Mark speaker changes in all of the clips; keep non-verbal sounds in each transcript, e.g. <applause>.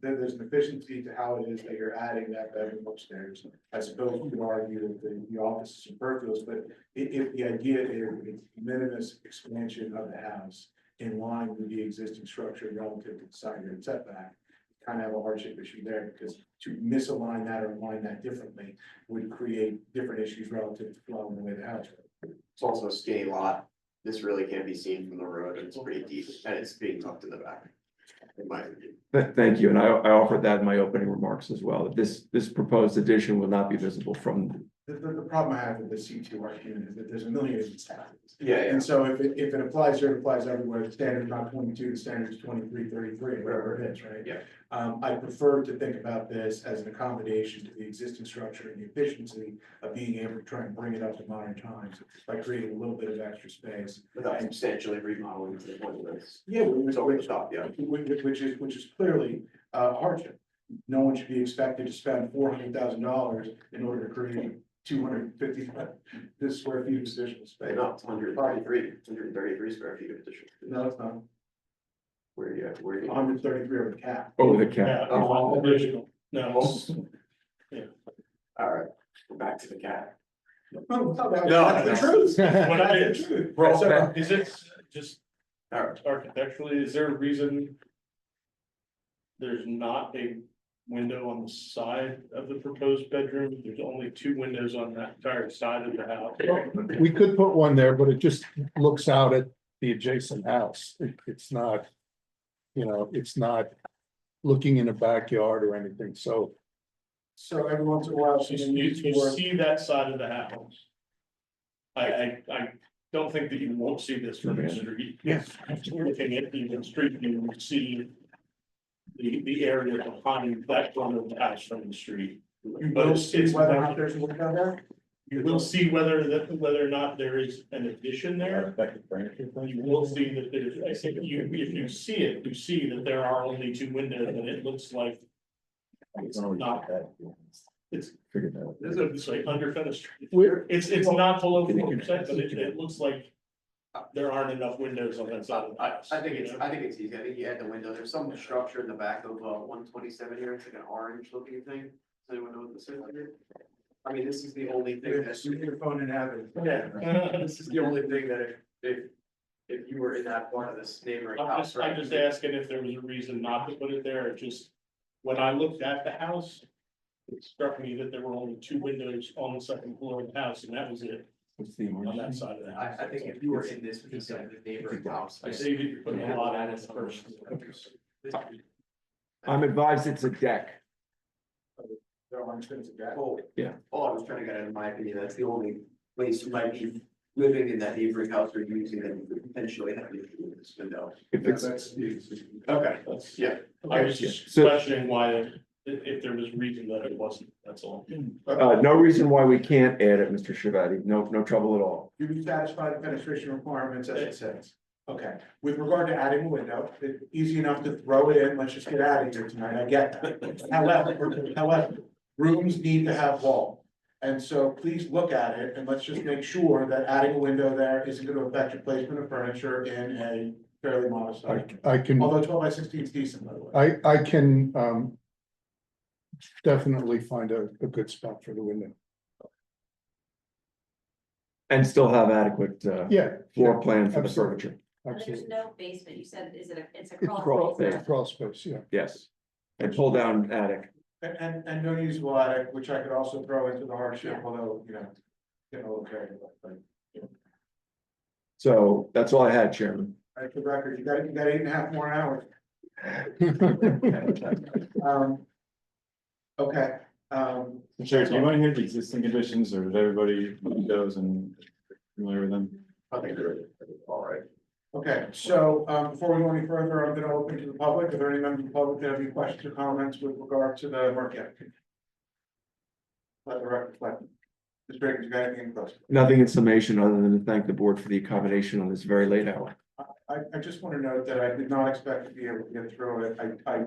Speaker 1: there- there's an efficiency to how it is that you're adding that bedroom upstairs. I suppose you could argue that the, the office is superfluous, but i- if the idea is it's minimus expansion of the house in line with the existing structure relative to the side yard setback, kind of have a hardship issue there because to misalign that or align that differently would create different issues relative to flow and the way the house. is.
Speaker 2: It's also a skinny lot. This really can't be seen from the road. and It's pretty deep and it's being tucked in the back. In my opinion.
Speaker 3: Th- Thank you, and I, I offered that in my opening remarks as well, that this, this proposed addition will not be visible from,
Speaker 1: The, the, the problem I have with the C two R unit is that there's a million of these houses.
Speaker 2: Yeah,
Speaker 1: And so if it, if it applies here, it applies everywhere, the standard's not twenty-two, the standard's twenty-three, thirty-three, whatever it is, right?
Speaker 2: Yeah.
Speaker 1: Um, I prefer to think about this as an accommodation to the existing structure and the efficiency of being able to try and bring it up to modern times by creating a little bit of extra space.
Speaker 2: Without substantially remodeling to the point where it's
Speaker 1: Yeah,
Speaker 2: it's over the top, yeah.
Speaker 1: Which, which- which is, which is clearly uh, a hardship. No one should be expected to spend four hundred thousand dollars in order to create two hundred fifty, <laughs> this square feet of additional space.
Speaker 2: About 133 133 square feet of additional.
Speaker 1: No, it's not.
Speaker 2: Where you, where you.
Speaker 1: One hundred thirty-three over the cap.
Speaker 3: over the cap.
Speaker 4: Yeah, no, all original, no,
Speaker 2: All right, we're back to the cat.
Speaker 1: No,
Speaker 2: No.
Speaker 1: that's the
Speaker 5: <laughs>
Speaker 1: truth.
Speaker 4: What it
Speaker 1: That's the
Speaker 4: is.
Speaker 1: truth.
Speaker 3: We're all
Speaker 1: So,
Speaker 3: back.
Speaker 4: is it just
Speaker 2: All right,
Speaker 4: architecturally, is there a reason? There's not a window on the side of the proposed bedroom, there's only two windows on that entire side of the house.
Speaker 5: We could put one there, but it just looks out at the adjacent house. It- It's not, you know, it's not looking in a backyard or anything, so.
Speaker 1: So every once in a while,
Speaker 4: You,
Speaker 1: she's
Speaker 4: you-
Speaker 1: needs
Speaker 4: you
Speaker 1: for,
Speaker 4: see that side of the house. I, I, I don't think that you won't see this from the street.
Speaker 5: Yes.
Speaker 4: We're looking at the street view, you see. The, the area behind that front of the house from the street.
Speaker 1: you
Speaker 4: But
Speaker 1: will
Speaker 4: it's-
Speaker 1: see
Speaker 4: it's-
Speaker 1: whether or not there's a window there.
Speaker 4: You will see whether that, whether or not there is an addition there. You will see that there's, I think you, if you see it, you see that there are only two windows and it looks like. It's not, it's,
Speaker 3: Figured that out.
Speaker 4: it's a- it's like under fenestrated.
Speaker 5: We're,
Speaker 4: It's, it's not below four percent, but it, it looks like. There aren't enough windows on that side of the
Speaker 2: I,
Speaker 4: house.
Speaker 2: I think it's, I think it's easy. I think you add the window. There's some structure in the back of, uh, one twenty-seven here. It's like an orange looking thing. Does anyone know what this is? I mean, this is the only thing that's.
Speaker 1: Your your phone and have it.
Speaker 2: <laughs>
Speaker 4: Yeah. <laughs>
Speaker 2: This is the only thing that if, if, if you were in that part of this neighboring
Speaker 4: I'm
Speaker 2: house,
Speaker 4: just, I'm
Speaker 2: right?
Speaker 4: just asking if there was a reason not to put it there, it just, when I looked at the house. It struck me that there were only two windows on the second floor of the house, and that was it
Speaker 3: What's the
Speaker 4: on that
Speaker 3: orange?
Speaker 4: side of the
Speaker 2: I,
Speaker 4: house.
Speaker 2: I think if you were in this piece of the neighboring house.
Speaker 4: I see that you're putting a lot on this first.
Speaker 2: This-
Speaker 3: I'm advised it's a deck.
Speaker 1: There aren't things like that.
Speaker 2: Oh,
Speaker 3: Yeah.
Speaker 2: All I was trying to get at, in my opinion, that's the only place you might be living in that neighboring house or using that you could potentially have an issue with this window.
Speaker 3: If it's,
Speaker 1: That's the existing.
Speaker 2: Okay.
Speaker 4: That's-
Speaker 2: Yeah.
Speaker 4: I was just
Speaker 3: So-
Speaker 4: questioning why, if, if there was reason that it wasn't, that's all.
Speaker 3: uh, no reason why we can't add it, Mr. Shavati, no, no trouble at all.
Speaker 1: You would satisfy the penetration requirements as it says. Okay, with regard to adding a window, it's easy enough to throw it in, let's just get out of here tonight, I get that. However, however, rooms need to have wall. And so please look at it and let's just make sure that adding a window there isn't gonna affect your placement of furniture in a fairly modest
Speaker 5: I,
Speaker 1: size.
Speaker 5: I can,
Speaker 1: Although twelve by sixteen is decent, by the way.
Speaker 5: I, I can, um. Definitely find a, a good spot for the window.
Speaker 3: And still have adequate, uh,
Speaker 5: Yeah.
Speaker 3: floor plan for the
Speaker 5: Absolutely.
Speaker 3: furniture,
Speaker 6: But there's
Speaker 5: Absolutely.
Speaker 6: no basement, you said, is it a, it's a
Speaker 5: It's
Speaker 6: crawl
Speaker 5: crawl,
Speaker 6: space?
Speaker 5: it's crawl space, yeah.
Speaker 3: yes. And pull down attic,
Speaker 1: And, and, and no usable attic, which I could also throw into the hardship, although, you know, getting a little carried away, but.
Speaker 3: so that's all I had,
Speaker 5: <laughs>
Speaker 3: Chairman.
Speaker 1: All right, for the record, you got, you got eight and a half more hours. Um. Okay, um,
Speaker 7: Chair, do you want to hear the existing conditions or is everybody goes and familiar with them?
Speaker 2: I think they're all right.
Speaker 1: okay, so, um, before we go any further, I'm gonna open to the public. Are there any members of the public that have any questions or comments with regard to the Merck applicant? Let the record reflect. Ms. Baker, you got anything close?
Speaker 3: Nothing in summation other than to thank the board for the accommodation on this very late hour.
Speaker 1: I, I just want to note that I did not expect to be able to get through it. I, I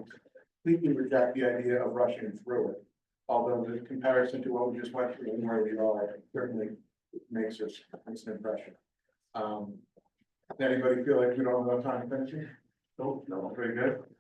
Speaker 1: completely reject the idea of rushing through it. Although the comparison to what we just went through and where we are certainly makes us, makes an impression. Um, does anybody feel like we don't have enough time to finish it? Nope. No, very good.